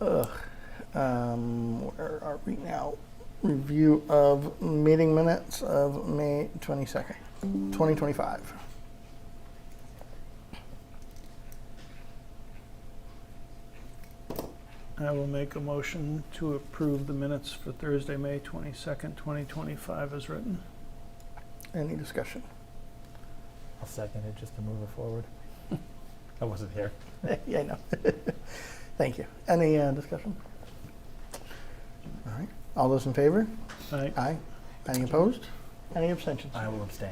Ugh. Um, where are we now? Review of meeting minutes of May 22nd, 2025. I will make a motion to approve the minutes for Thursday, May 22nd, 2025 as written. Any discussion? I'll second it just to move it forward. I wasn't here. yeah, I know. Thank you. Any uh, discussion? All right. All those in favor? Aye. Aye. Any opposed? Any abstentions? I will abstain.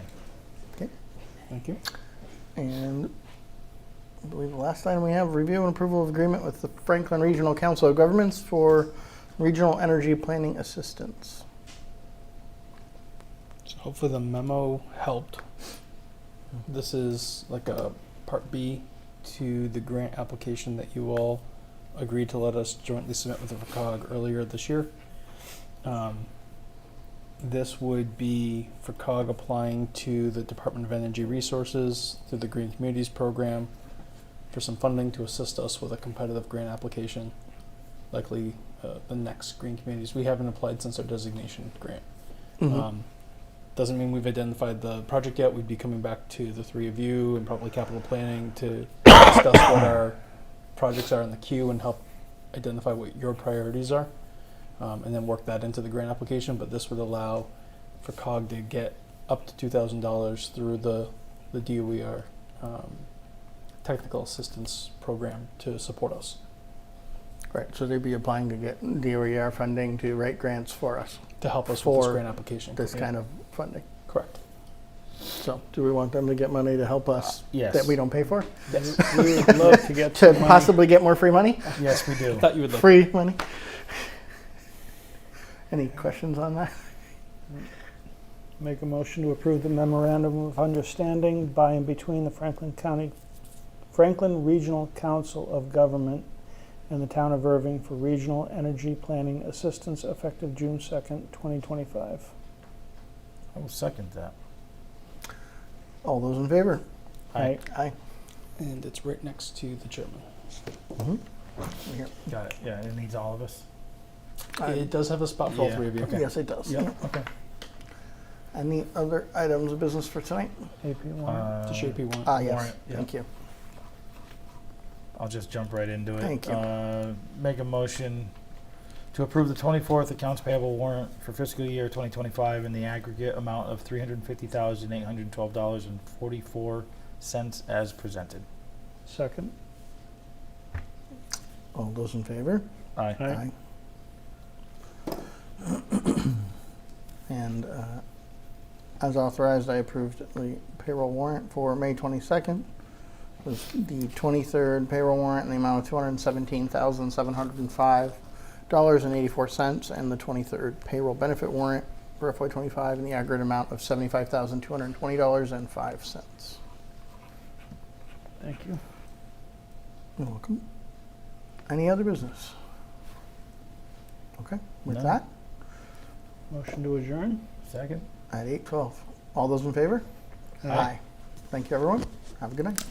Thank you. And I believe the last item we have, review and approval of agreement with the Franklin Regional Council of Governments for regional energy planning assistance. So hopefully the memo helped. This is like a part B to the grant application that you all agreed to let us jointly submit with the FCOG earlier this year. Um, this would be FCOG applying to the Department of Energy Resources through the Green Communities Program for some funding to assist us with a competitive grant application, likely uh, the next Green Communities. We haven't applied since our designation grant. Mm-hmm. Um, doesn't mean we've identified the project yet. We'd be coming back to the three of you and probably capital planning to discuss what our projects are in the queue and help identify what your priorities are, um, and then work that into the grant application. But this would allow for COG to get up to two thousand dollars through the the DOER um, technical assistance program to support us. Right, so they'd be applying to get DOER funding to write grants for us, To help us with this For grant application. this kind of funding. Correct. So do we want them to get money to help us Yes. that we don't pay for? Yes, We would love to get To some money. possibly get more free money? yes we do. Thought you would like Free money? Any questions on that? Make a motion to approve the memorandum of understanding by and between the Franklin County, Franklin Regional Council of Government and the Town of Irving for regional energy planning assistance effective June 2nd, 2025. I will second that. All those in favor? Aye. Aye. And it's right next to the chairman. Here. Got it. Yeah, and it needs all of us. Aye. It does have a spot for all Yeah. three of you. Yes, it does. Yeah. Okay. Any other items of business for tonight? AP warrant. Uh, To shape you want. Ah, yes, Warrant, yeah. thank you. I'll just jump right into it. Thank you. Uh, make a motion to approve the 24th accounts payable warrant for fiscal year 2025 in the aggregate amount of $350,812.44 as presented. Second. All those in favor? Aye. Aye. Aye. And uh, as authorized, I approved the payroll warrant for May 22nd. It was the 23rd payroll warrant in the amount of $217,705.84 and the 23rd payroll benefit warrant for FY25 in the aggregate amount of $75,220.05. Thank you. You're welcome. Any other business? Okay, with None. that, Motion to adjourn. Second? at 8:12. All those in favor? Thank you, everyone. Have a good night.